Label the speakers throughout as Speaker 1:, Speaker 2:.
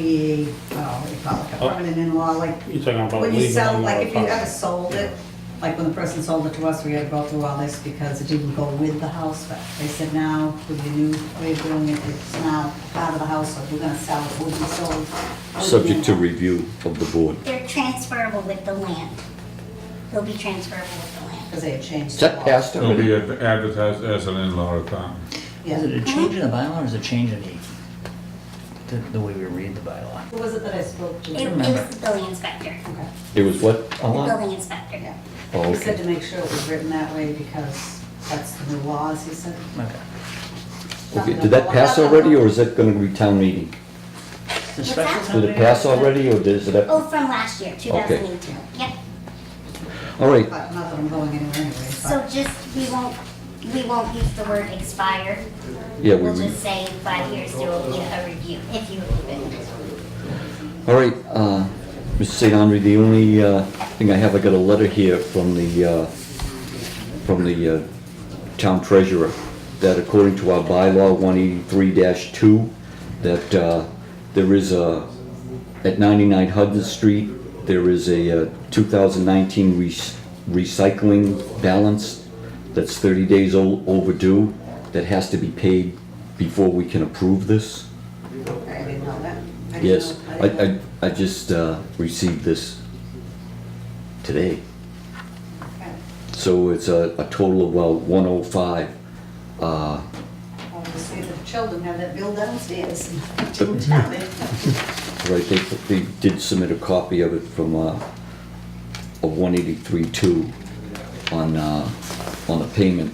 Speaker 1: be, oh, what do you call it, a
Speaker 2: Oh.
Speaker 1: permanent in-law, like,
Speaker 2: You're talking about
Speaker 1: when you
Speaker 2: legal
Speaker 1: sell,
Speaker 2: and
Speaker 1: like,
Speaker 2: all
Speaker 1: if you
Speaker 2: that.
Speaker 1: ever sold it, like, when the person sold it to us, we had to go through all this because it didn't go with the house, but they said now, with your new way of doing it, it's now part of the house, so if we're gonna sell it, it will be sold. with the
Speaker 3: Subject to
Speaker 1: name.
Speaker 3: review of the board.
Speaker 4: They're transferable with the land. They'll be transferable with the land.
Speaker 1: Because they had changed.
Speaker 5: Is
Speaker 1: the
Speaker 5: that
Speaker 1: law.
Speaker 5: passed
Speaker 6: It'll be
Speaker 5: already?
Speaker 6: ad- advertised as an in-law apartment.
Speaker 1: Yeah.
Speaker 7: Is it a change in the bylaw or is it a change in the, the, the way we read the bylaw?
Speaker 1: Who was it that I spoke to?
Speaker 7: Yeah.
Speaker 4: It
Speaker 7: remember.
Speaker 4: was the building inspector.
Speaker 1: Okay,
Speaker 3: It was what?
Speaker 4: The
Speaker 3: Alon?
Speaker 4: building inspector.
Speaker 1: yeah.
Speaker 3: Oh,
Speaker 1: He said
Speaker 3: okay.
Speaker 1: to make sure it was written that way because that's the new laws, he said.
Speaker 7: Okay.
Speaker 3: Okay, did that pass already, or is that gonna be town meeting?
Speaker 7: The
Speaker 4: What's
Speaker 7: special
Speaker 4: that?
Speaker 7: town
Speaker 3: Did it pass already, or does it,
Speaker 4: Oh,
Speaker 3: all
Speaker 4: from last year, 2018. Yep.
Speaker 3: right,
Speaker 1: But not that I'm going anywhere anyway,
Speaker 4: So
Speaker 1: but
Speaker 4: just, we won't, we won't use the word expire.
Speaker 3: Yeah, we
Speaker 4: We'll
Speaker 3: would.
Speaker 4: just say five years there will be a review, if you approve it. Um,
Speaker 3: all right, uh, Mr. St. Andre, the only, uh, thing I have, I got a letter here from the, uh, from the, uh, town treasurer, that according to our bylaw one eighty-three two, that, uh, there is a, at ninety-nine Hudson Street, there is a, uh, two thousand nineteen recycling balance that's thirty days o- overdue, that has to be paid before we can approve this.
Speaker 1: I didn't know that. I didn't
Speaker 3: Yes,
Speaker 1: know- didn't know.
Speaker 3: I, I, I just uh, received this today.
Speaker 1: Okay.
Speaker 3: So it's a, a total of, well, 105. Uh,
Speaker 1: Well, we say that the children have that bill downstairs, and didn't tell me.
Speaker 3: right, they, they did submit a copy of it from, uh, a 183.2 on, uh, on the payment.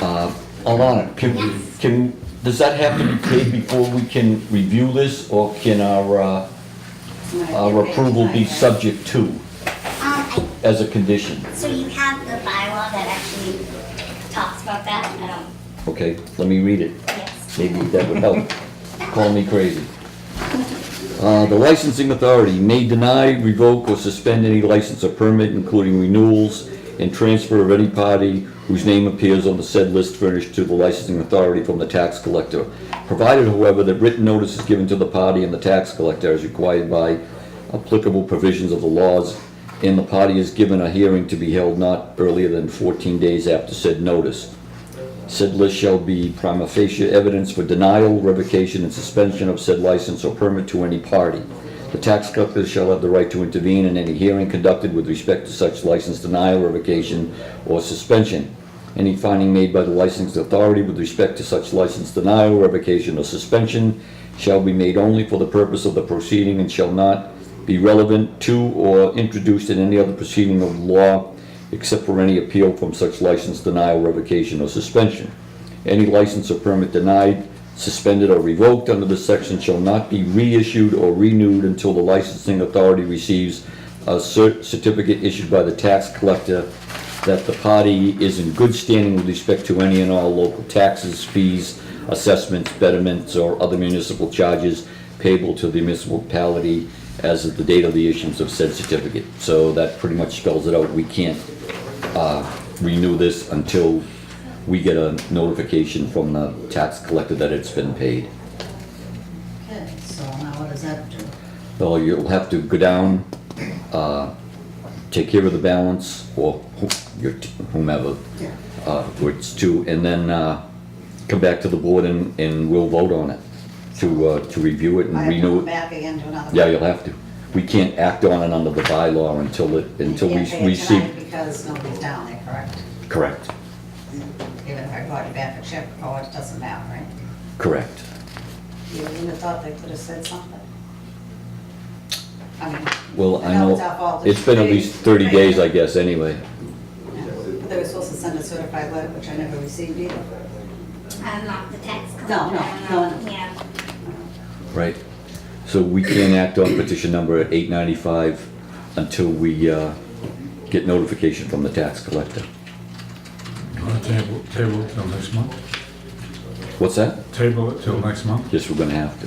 Speaker 3: Uh, Alana, can, we-
Speaker 4: Yes.
Speaker 3: can, does that have to be paid before we can review this, or can our, uh, our approval be subject to,
Speaker 4: Um,
Speaker 3: as a condition?
Speaker 4: I, so you have the bylaw that actually talks about that? I don't,
Speaker 3: Okay, let me read it.
Speaker 4: yes.
Speaker 3: Maybe that would help. Call me crazy. Uh, The licensing authority may deny, revoke, or suspend any license or permit, including renewals and transfer of any party whose name appears on the said list furnished to the licensing authority from the tax collector, provided however that written notice is given to the party and the tax collector as required by applicable provisions of the laws, and the party is given a hearing to be held not earlier than 14 days after said notice. Said list shall be prima facie evidence for denial, revocation, and suspension of said license or permit to any party. The tax collector shall have the right to intervene in any hearing conducted with respect to such license denial, revocation, or suspension. Any finding made by the licensed authority with respect to such license denial, revocation, or suspension shall be made only for the purpose of the proceeding and shall not be relevant to or introduced in any other proceeding of law except for any appeal from such license denial, revocation, or suspension. Any license or permit denied, suspended, or revoked under this section shall not be reissued or renewed until the licensing authority receives a cer- certificate issued by the tax collector that the party is in good standing with respect to any and all local taxes, fees, assessments, betterments, or other municipal charges payable to the municipality as of the date of the issuance of said certificate. So that pretty much spells it out. We can't uh, renew this until we get a notification from the tax collector that it's been paid.
Speaker 1: Okay, so now what does that do?
Speaker 3: Well, you'll have to go down, uh, take care of the balance, or who- your t- whomever,
Speaker 1: Yeah.
Speaker 3: uh, who it's to, and then uh, come back to the board and, and we'll vote on it, to, uh, to review it and
Speaker 1: I have to
Speaker 3: renew
Speaker 1: go
Speaker 3: it.
Speaker 1: back again to another.
Speaker 3: Yeah, you'll have to. We can't act on it under the bylaw until it,
Speaker 1: You
Speaker 3: until
Speaker 1: can't pay it
Speaker 3: we receive.
Speaker 1: tonight Because nobody's down there, correct?
Speaker 3: Correct,
Speaker 1: Even if I brought it back a check, oh, it doesn't matter, right?
Speaker 3: correct.
Speaker 1: You wouldn't have thought they could have said something? I mean,
Speaker 3: Well,
Speaker 1: I
Speaker 3: I
Speaker 1: know it's our
Speaker 3: know,
Speaker 1: fault.
Speaker 3: it's been at
Speaker 1: They-
Speaker 3: least thirty
Speaker 1: they-
Speaker 3: days, I guess, anyway.
Speaker 1: yeah. But they were supposed to send a certified letter, which I never received either.
Speaker 4: I'm not the tax collector.
Speaker 1: No, no,
Speaker 4: I'm
Speaker 1: no,
Speaker 4: not-
Speaker 1: no.
Speaker 4: Yeah.
Speaker 3: Right. So we can't act on petition number eight ninety-five until we, uh, get notification from the tax collector.
Speaker 6: You want to table, table it till next month?
Speaker 3: What's that?
Speaker 6: Table it till next month?
Speaker 3: Yes, we're gonna have to.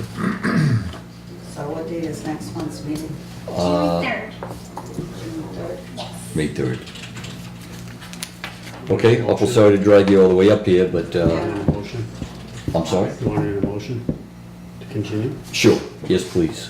Speaker 1: So what date is next month's meeting?
Speaker 3: Uh,
Speaker 4: June third.
Speaker 3: May third. Okay, awful sorry to drag you all the way up here, but, uh,
Speaker 2: Motion,
Speaker 3: I'm sorry?
Speaker 2: you want to read a motion to continue?
Speaker 3: Sure, yes, please.